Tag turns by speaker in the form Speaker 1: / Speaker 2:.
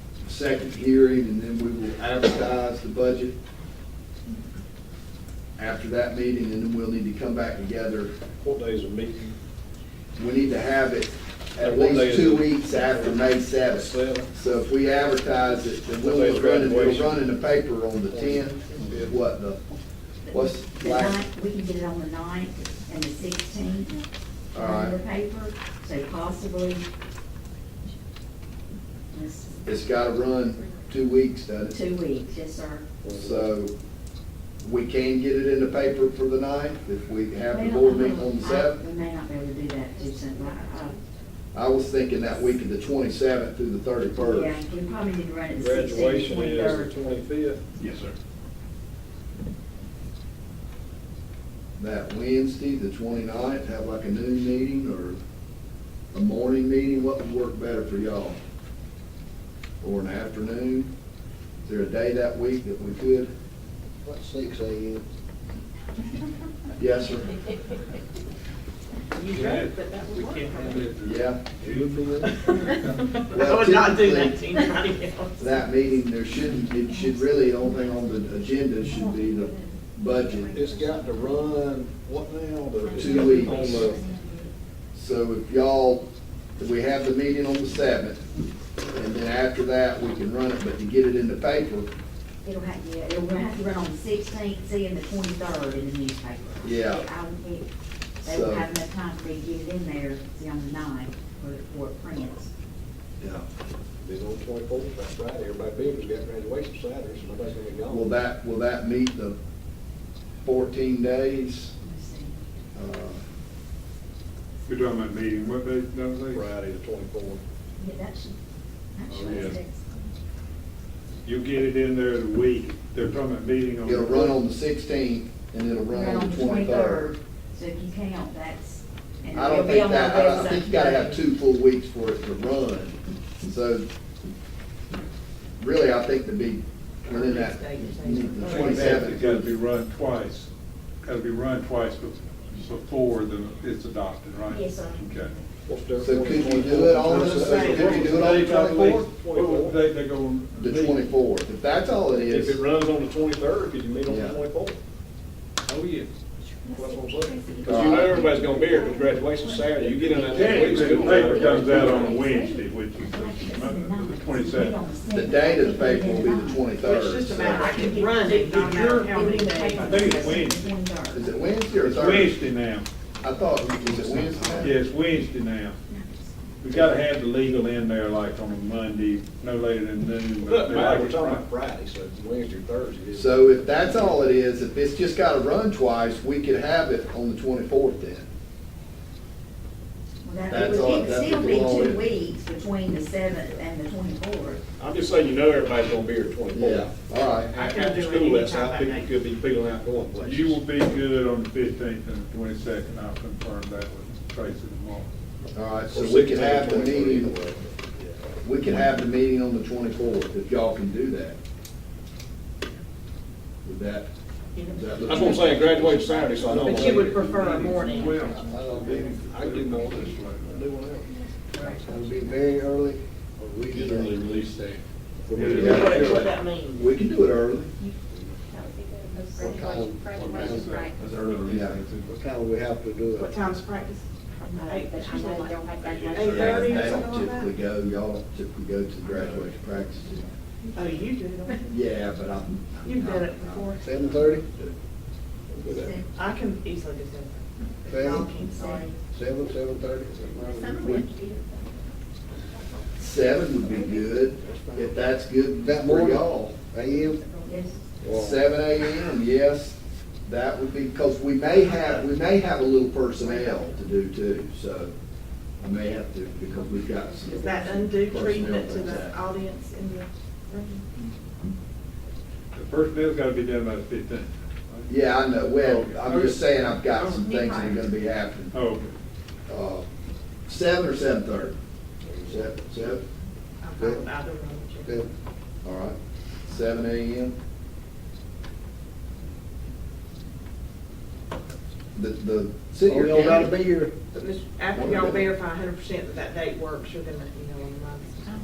Speaker 1: second hearing, and then we will advertise the budget after that meeting, and then we'll need to come back together.
Speaker 2: What days are meeting?
Speaker 1: We need to have it at
Speaker 2: Like, what day
Speaker 1: least
Speaker 2: is
Speaker 1: two
Speaker 2: it?
Speaker 1: weeks after May seventh.
Speaker 2: Seven?
Speaker 1: So if we advertise it, then
Speaker 2: What day
Speaker 1: we'll
Speaker 2: is
Speaker 1: run, it- we'll
Speaker 2: graduation?
Speaker 1: run in the paper on the tenth, what, the, what's
Speaker 3: The
Speaker 1: like,
Speaker 3: ninth, we can get it on the ninth and the sixteenth
Speaker 1: All right.
Speaker 3: on the paper, so possibly. Let's-
Speaker 1: it's gotta run two weeks, doesn't it?
Speaker 3: Two weeks, yes, sir.
Speaker 1: So we can get it in the paper for the ninth if we have the board meeting on the
Speaker 3: Well, I-
Speaker 1: seventh.
Speaker 3: uh, We may not be able to do that too soon, but, uh,
Speaker 1: I was thinking that week of the twenty-seventh through the
Speaker 3: yeah,
Speaker 1: thirty-first.
Speaker 3: we probably need to run it the sixteenth,
Speaker 2: Graduation is
Speaker 3: twenty-third.
Speaker 2: the twenty-fifth.
Speaker 1: Yes, sir. That Wednesday, the 29th, have like a noon meeting or a morning meeting, what would work better for y'all? Or an afternoon? Is there a day that week that we could?
Speaker 4: What, six AM?
Speaker 1: Yes, sir.
Speaker 5: You drove, but that would work.
Speaker 1: Yeah.
Speaker 5: I
Speaker 1: Well,
Speaker 5: would not do that to
Speaker 1: typically-
Speaker 5: anybody else.
Speaker 1: that meeting, there shouldn't, it should really, the only thing on the agenda should be the budget.
Speaker 4: It's got to run, what now? The-
Speaker 1: Two weeks.
Speaker 2: On the,
Speaker 1: So if y'all, if we have the meeting on the seventh, and then after that, we can run it, but to get it in the paper,
Speaker 3: It'll have, yeah, it'll, we'll have to run on the sixteenth, see, and the twenty-third in the newspaper.
Speaker 1: Yeah.
Speaker 3: I would be- They
Speaker 1: So-
Speaker 3: will have enough time for me to get it in there, see, on the ninth, where, where it prints.
Speaker 1: yeah,
Speaker 4: It's on twenty-fourth, that's Friday, everybody Beaver's got graduation Saturday, so nobody's gonna be gone.
Speaker 1: will that, will that meet the fourteen days?
Speaker 3: Let's see.
Speaker 1: Uh,
Speaker 6: You're talking about meeting, what day, that was it?
Speaker 2: Friday, the twenty-fourth.
Speaker 3: Yeah, that should, that
Speaker 6: Oh,
Speaker 3: should
Speaker 6: yeah.
Speaker 3: fix.
Speaker 6: You get it in there the week, they're talking about meeting on.
Speaker 1: It'll run on the sixteenth, and it'll run on the twenty-third.
Speaker 3: So if you count, that's. and
Speaker 1: I
Speaker 3: it'll
Speaker 1: don't
Speaker 3: be
Speaker 1: think
Speaker 3: on our
Speaker 1: that, I I
Speaker 3: website.
Speaker 1: think you gotta have two full weeks for it to run. So, really, I think to be within that,
Speaker 6: I
Speaker 1: the
Speaker 6: think that It's gotta
Speaker 1: twenty-seventh.
Speaker 6: be run twice, gotta be run twice bef- before the, it's adopted, right?
Speaker 3: Yes, sir.
Speaker 6: Okay.
Speaker 2: What's the
Speaker 1: So
Speaker 2: difference
Speaker 1: could you
Speaker 2: between
Speaker 1: do it
Speaker 2: 24th
Speaker 1: on
Speaker 2: and
Speaker 1: the,
Speaker 2: Saturday?
Speaker 1: could you do it on the
Speaker 2: Dave, I believe-
Speaker 1: twenty-fourth?
Speaker 6: What would they, they go?
Speaker 1: The twenty-fourth, if that's all it
Speaker 2: If it
Speaker 1: is,
Speaker 2: runs on the twenty-third, could you meet on the
Speaker 1: Yeah.
Speaker 2: twenty-fourth?
Speaker 6: Oh, yeah.
Speaker 2: That's what I'm saying. Because
Speaker 1: Uh,
Speaker 2: you know everybody's gonna be here, because graduation's Saturday, you get in that next
Speaker 6: Technically,
Speaker 2: week,
Speaker 6: the
Speaker 2: school.
Speaker 6: paper
Speaker 2: Well,
Speaker 6: comes out on a Wednesday, which is the twenty-seventh.
Speaker 1: the date of the paper will be the twenty-third.
Speaker 5: It's just a matter, I can run it, not matter how many days.
Speaker 6: I think it's Wednesday.
Speaker 1: Is it Wednesday or
Speaker 6: It's
Speaker 1: Thursday?
Speaker 6: Wednesday now,
Speaker 1: I thought, was it Wednesday?
Speaker 6: yeah, it's Wednesday now. We gotta have the legal in there like on a Monday, no later than noon. but
Speaker 2: Look,
Speaker 6: they
Speaker 2: man,
Speaker 6: like
Speaker 2: we're talking
Speaker 6: it Friday.
Speaker 2: about Friday, so it's Wednesday, or Thursday.
Speaker 1: So if that's all it is, if it's just gotta run twice, we could have it on the twenty-fourth then. That's
Speaker 3: It
Speaker 1: all-
Speaker 3: would
Speaker 1: that's
Speaker 3: still
Speaker 1: the
Speaker 3: be
Speaker 1: law
Speaker 3: two
Speaker 1: is.
Speaker 3: weeks between the seventh and the twenty-fourth.
Speaker 2: I'm just saying, you know everybody's gonna be here twenty-fourth.
Speaker 1: Yeah, all right.
Speaker 2: After school, that's how people could be feeling out going places.
Speaker 6: You will be good on the fifteenth and the twenty-second, I'll confirm that with Tracy tomorrow.
Speaker 1: All right, so
Speaker 2: Or
Speaker 1: we can
Speaker 2: 16th,
Speaker 1: have the
Speaker 2: 23rd,
Speaker 1: meeting,
Speaker 2: either way.
Speaker 1: we can have the meeting on the twenty-fourth, if y'all can do that. Would that, does that look?
Speaker 2: That's what I'm saying, graduation's Saturday, so I know.
Speaker 5: But you would prefer a
Speaker 2: I
Speaker 5: morning.
Speaker 2: can do more than this.
Speaker 4: It'll be very early, or we get early.
Speaker 2: release date.
Speaker 5: What what that means.
Speaker 1: We can do it early.
Speaker 4: What time,
Speaker 6: That's early.
Speaker 1: Yeah.
Speaker 4: what time we have to do
Speaker 5: What
Speaker 4: it?
Speaker 5: time's practice? Eight,
Speaker 3: But you know, they don't have
Speaker 5: Eight thirty or
Speaker 1: They don't
Speaker 5: something
Speaker 1: typically
Speaker 5: like that?
Speaker 1: go, y'all don't typically go to graduation practices.
Speaker 5: Oh, you do, don't you?
Speaker 1: Yeah, but I'm.
Speaker 5: You've done it before.
Speaker 4: Seven thirty?
Speaker 5: I can easily do that.
Speaker 4: Seven,
Speaker 3: Sorry.
Speaker 4: seven, seven thirty?
Speaker 1: Seven would be good, if that's good
Speaker 4: That
Speaker 1: for
Speaker 4: morning?
Speaker 1: y'all.
Speaker 4: AM?
Speaker 3: Yes.
Speaker 1: Seven AM, yes, that would be, because we may have, we may have a little personnel to do too, so I may have to, because we've got some.
Speaker 5: Is that undue
Speaker 1: personnel
Speaker 5: treatment to
Speaker 1: things
Speaker 5: the
Speaker 1: that-
Speaker 5: audience in the room?
Speaker 6: The first bill's gotta be done by the fifteenth.
Speaker 1: Yeah, I know, well, I'm just saying I've got some
Speaker 5: Okay.
Speaker 1: things that are gonna be happening.
Speaker 6: Oh,
Speaker 1: Uh, Seven or seven thirty? Seven, seven,
Speaker 5: I'm fine with either one.
Speaker 4: Seven.
Speaker 1: all right, seven AM. The, the city
Speaker 4: Oh,
Speaker 1: or
Speaker 4: y'all gotta
Speaker 1: county,
Speaker 4: be here.
Speaker 5: But Mr. After y'all verify hundred percent that that date works, you're gonna, you know, on the